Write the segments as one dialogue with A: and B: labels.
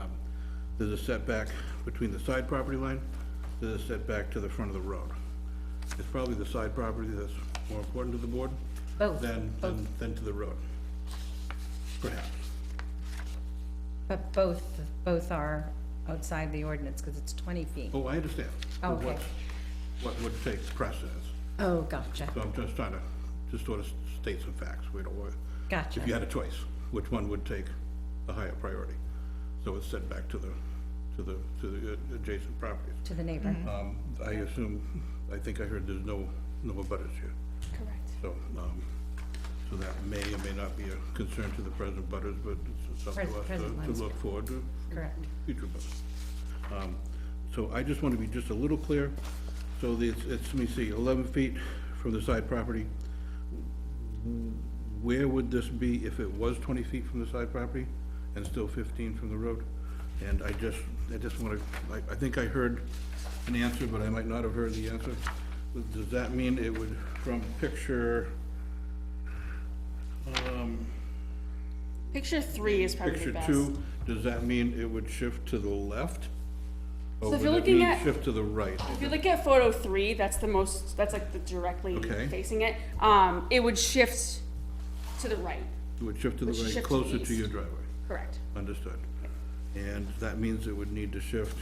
A: Um, There's a setback between the side property line, there's a setback to the front of the road. It's probably the side property that's more important to the board
B: Both,
A: than, than, than to the road. Perhaps.
B: but both, both are outside the ordinance, because it's 20 feet.
A: Oh, I understand. But
B: Okay.
A: what's- What would take precedence?
B: Oh, gotcha,
A: So I'm just trying to, just sort of state some facts. We don't want, if you
B: gotcha.
A: had a choice, which one would take a higher priority? So it's set back to the, to the, to the adjacent properties.
B: To the neighbor.
A: Um, I assume, I think I heard there's no, no abutters here,
C: Correct.
A: so, um, so that may or may not be a concern to the present butters, but it's up to
B: Pres-
A: us
B: present
A: to-
B: ones.
A: to look forward to
B: Correct.
A: future butters. Um, So I just want to be just a little clear, so the- it's, it's, let me see, eleven feet from the side property. Where would this be if it was twenty feet from the side property and still fifteen from the road? And I just, I just want to, I, I think I heard an answer, but I might not have heard the answer. Does that mean it would, from picture, um,
C: Picture three is probably
A: Picture
C: best.
A: two, does that mean it would shift to the left? Or
C: So if
A: would
C: you're
A: it
C: looking
A: mean
C: at-
A: Shift to the right?
C: If you look at photo three, that's the most. That's like the directly
A: Okay.
C: facing it. Um, it would shift to the right.
A: It would shift to the
C: Would shift to
A: right,
C: the
A: closer to
C: east.
A: your driveway,
C: Correct.
A: understood. And that means it would need to shift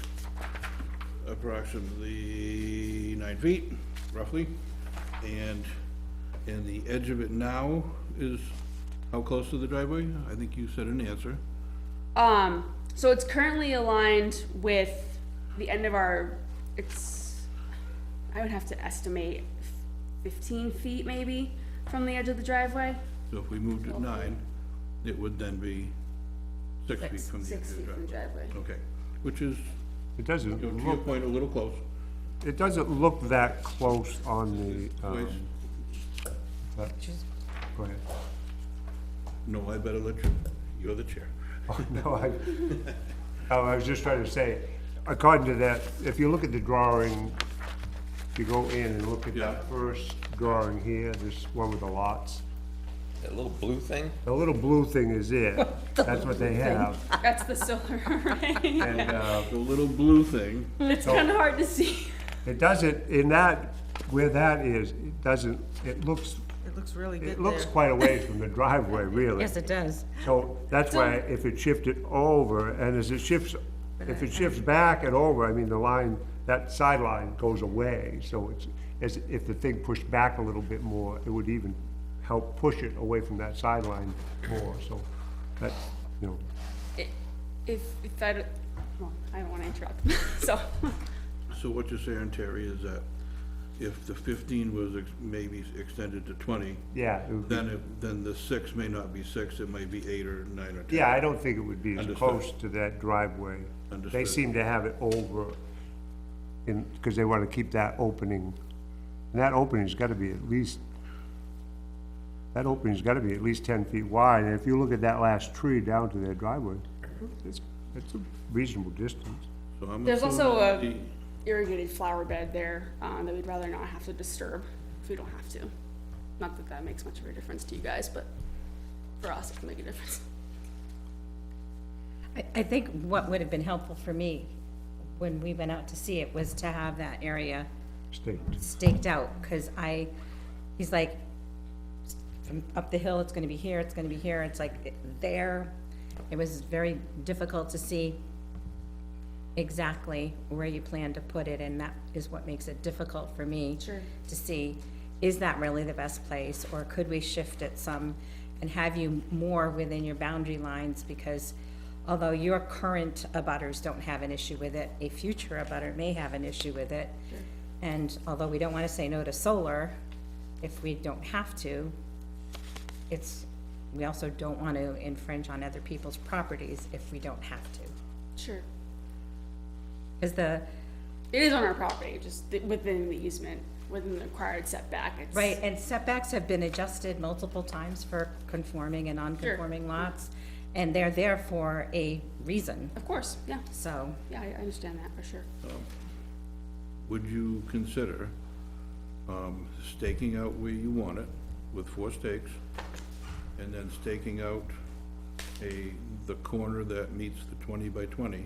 A: approximately nine feet, roughly. And, and the edge of it now is how close to the driveway? I think you said an answer.
C: Um, so it's currently aligned with the end of our. It's. I would have to estimate fifteen feet maybe from the edge of the driveway.
A: So if we moved it nine, it would then be six feet
B: Six-
A: from the edge
C: Six
A: of the
C: feet from the
A: driveway.
C: driveway.
A: Okay, which is,
D: It
A: you know,
D: doesn't
A: to your
D: look,
A: point, a little close.
D: it doesn't look that close on the,
A: Wait,
D: um, but- go ahead.
A: no, I better let you, you're the chair.
D: Oh, No, I, oh, I was just trying to say, according to that, if you look at the drawing, if you go in and look at
A: Yeah.
D: that first drawing here, this one with the lots,
E: That little blue thing?
D: the little blue thing is it, that's what they have.
C: That's the solar array.
D: And, uh,
A: The little blue thing,
C: it's kind of hard to see.
D: it doesn't, in that, where that is, it doesn't, it looks,
F: It looks really good
D: it looks
F: there.
D: quite a ways from the driveway, really.
B: Yes, it does.
D: So that's why if it shifted over, and as it shifts, if it shifts back and over, I mean, the line, that sideline goes away. So it's, as, if the thing pushed back a little bit more, it would even help push it away from that sideline more, so that, you know,
C: If, if I, don't- well, I don't want to interrupt, so,
A: so what you're saying, Terry, is that if the fifteen was ex- maybe extended to twenty,
D: yeah. it would be-
A: then it, then the six may not be six, it might be eight or nine or ten.
D: Yeah, I don't think it would be as
A: Understood.
D: close to that driveway. They
A: Understood.
D: seem to have it over in, because they want to keep that opening. And that opening's got to be at least, that opening's got to be at least ten feet wide. And if you look at that last tree down to their driveway,
A: Mm-hmm.
D: it's, it's a reasonable distance.
A: So I'm
C: There's
A: assuming
C: also a-
A: the-
C: irrigated flower bed there, uh, that we'd rather not have to disturb if we don't have to. Not that that makes much of a difference to you guys, but for us, it can make a difference.
B: I, I think what would have been helpful for me when we went out to see it was to have that area
D: State,
B: staked out, because I, he's like, from up the hill, it's gonna be here, it's gonna be here, it's like it- there. It was very difficult to see exactly where you plan to put it, and that is what makes it difficult for me.
C: Sure.
B: To see, is that really the best place, or could we shift it some and have you more within your boundary lines? Because although your current abutters don't have an issue with it, a future abutter may have an issue with it. And although we don't wanna say no to solar, if we don't have to, it's, we also don't want to infringe on other people's properties if we don't have to.
C: Sure.
B: Is the,
C: It is on our property, just th- within the easement, within the required setback, it's.
B: right, and setbacks have been adjusted multiple times for conforming and non-conforming lots, and they're there for a reason,
C: Of course, yeah,
B: so.
C: yeah, I I understand that for sure.
A: Would you consider, um, staking out where you want it with four stakes? And then staking out a, the corner that meets the twenty by twenty?